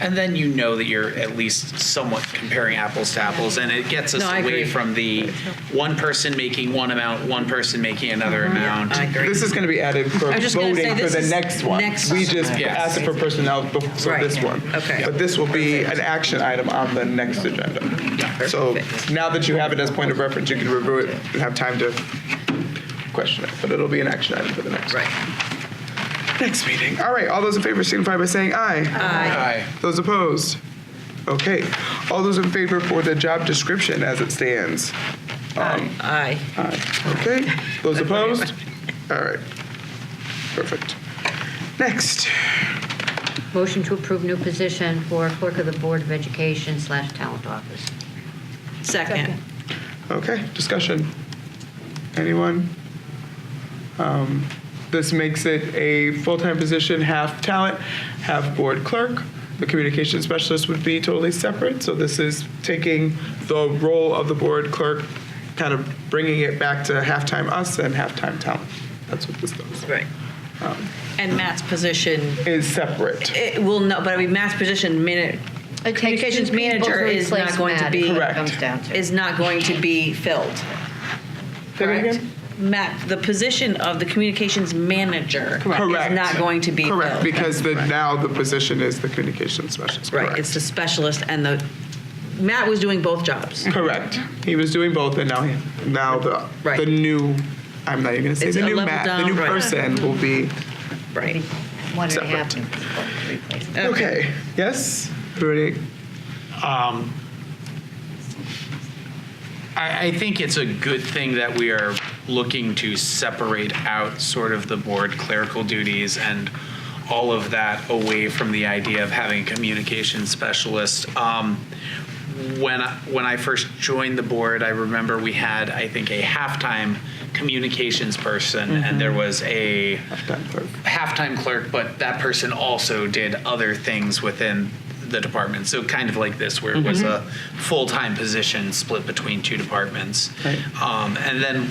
And then you know that you're at least somewhat comparing apples to apples, and it gets us No, I away agree. from the one person making one amount, one person making another amount. Uh-huh. I agree. This is going to be added for I was just gonna say voting for this the is next one. next We one. just Yes. asked for personnel bef- for Right. this one. Okay. But this will be an action item on the next agenda. So Perfect. now that you have it as point of reference, you can review it and have time to question it. But it'll be an action item for the next. Right. Next meeting. All right, all those in favor signify by saying aye. Aye. Those opposed? Okay. All those in favor for the job description as it stands? Aye. Aye. Okay. Those opposed? All right. Perfect. Next. Motion to approve new position for clerk of the Board of Education slash talent office. Second. Okay, discussion. Anyone? Um, This makes it a full-time position, half talent, half board clerk. The communication specialist would be totally separate, so this is taking the role of the board clerk, kind of bringing it back to half-time us and half-time talent. That's what this does. Right. Um, And Matt's position, Is separate. it will no, but I mean, Matt's position, minute, communications manager is not going to be, Correct. Comes down to. is not going to be filled. Say that Correct? again? Matt, the position of the communications manager Correct. is not going to be filled. Correct, because the, now the position is the communication specialist. Right, correct. it's the specialist and the, Matt was doing both jobs. Correct. He was doing both, and now he, now the Right. the new. I'm not even gonna say It's the a new level Matt, down, the new right. person will be Right. One and a half. separate. replacement. okay. Yes. Everybody. I, I think it's a good thing that we are looking to separate out sort of the board clerical duties and all of that away from the idea of having a communication specialist. Um, when I, when I first joined the board, I remember we had I think a halftime communications person, and there was a Done, clerk. halftime clerk, but that person also did other things within the department. So kind of like this, where it was a full-time position split between two departments. Um, and then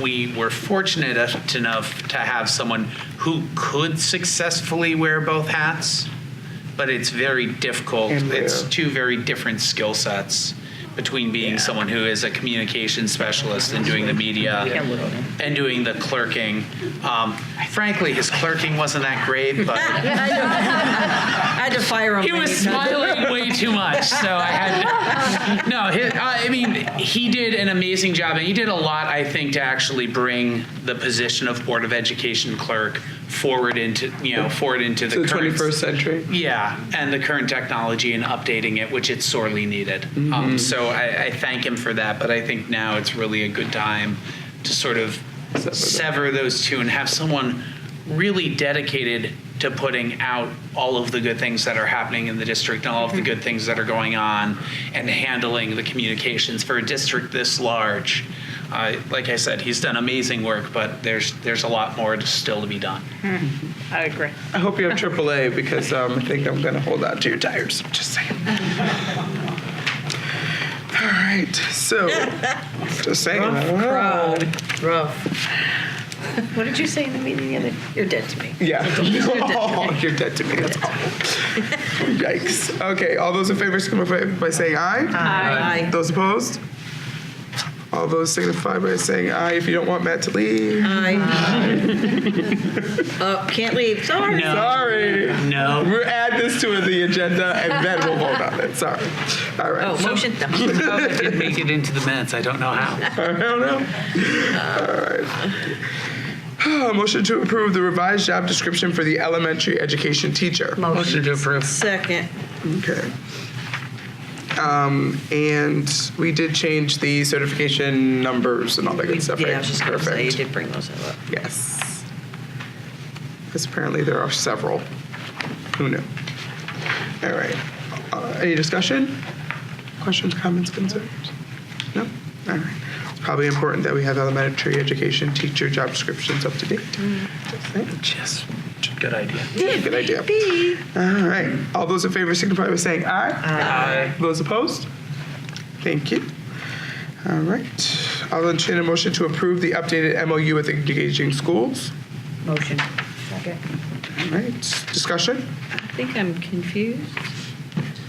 we were fortunate enough to have someone who could successfully wear both hats, but it's very difficult. And It's rare. two very different skill sets between being someone who is a communication specialist and doing the media and doing the clerking. Um, frankly, his clerking wasn't that great, but I had to fire him. he when was said that. smiling way too much, so I had to, no. He, I mean, he did an amazing job, and he did a lot, I think, to actually bring the position of Board of Education clerk forward into you know forward into the So the current- 21st century. yeah, and the current technology and updating it, which it's sorely needed. Um, so I, I thank him for that, but I think now it's really a good time to sort of Sever sever, them. those two and have someone really dedicated to putting out all of the good things that are happening in the district and all of the good things that are going on and handling the communications for a district this large. Uh, like I said, he's done amazing work, but there's there's a lot more to, still to be done. I agree. I hope you have AAA because um, I think I'm gonna hold out to your tires. Just saying. All right. So, just saying. Proud. Rough. What did you say in the meeting the other? You're dead to me. Yeah. dead to Oh, you're dead to me. That's awful. Yikes. Okay. All those in favor signify by saying aye. Aye. Those opposed? All those signify by saying aye if you don't want Matt to leave. Aye. Oh, can't leave. Sorry. Sorry. No. We'll add this to the agenda and then we'll vote on it. Sorry. All right. Oh, motion. Somehow that did make it into the minutes. I don't know how. I don't know. All right. Motion to approve the revised job description for the elementary education teacher. Motion. to approve. Second. Okay. Um, and we did change the certification numbers and all that good stuff. Yeah, right? I was just gonna say, you Perfect. did bring those up. Yes. Because apparently there are several. Who knew? All right. Uh, any discussion? Questions, comments, concerns? No? All right. It's probably important that we have elementary education teacher job descriptions up to date. Yes, good idea. Yeah, good idea. All right. All those in favor signify by saying aye. Aye. Those opposed? Thank you. All right. I'll entertain a motion to approve the updated MOU with engaging schools. Motion. Second. All right, discussion? I think I'm confused.